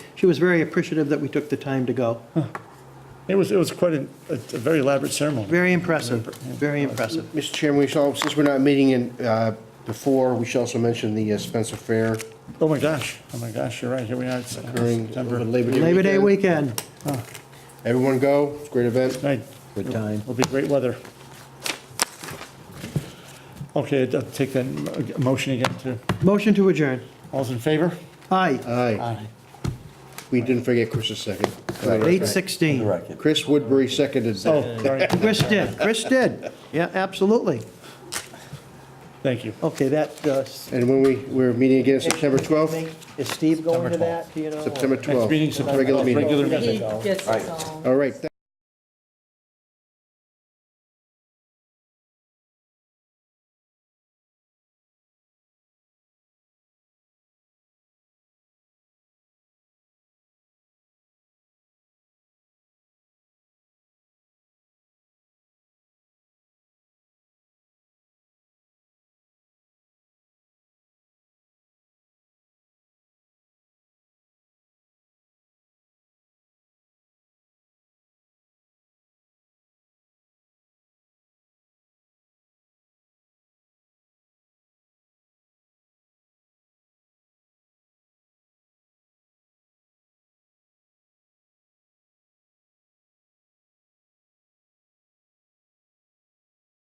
She was very appreciative that we took the time to go. It was, it was quite a, a a very elaborate ceremony. Very impressive, very impressive. Mr. Chairman, we shall, since we're not meeting in, uh, before, we should also mention the uh, Spencer Fair Oh my gosh, oh my gosh, you're right, here we are, it's uh, during September. Labor Day weekend. Labor Day weekend. Everyone go, it's a great event. Right, Good time. will be great weather. Okay, I'll take that mo- motion again to, Motion to adjourn. all's in favor? Aye, Aye. We didn't forget Chris's second. eight sixteen. Record. Chris Woodbury seconded that. Oh, sorry, Chris did, Chris did. Yeah, absolutely. thank you. Okay, that, uh, And when we, we're meeting again September 12th, is Steve going to that, do you know? or- September Next 12th. meeting, September. Regular meeting. Regular meeting. He gets us all. All right.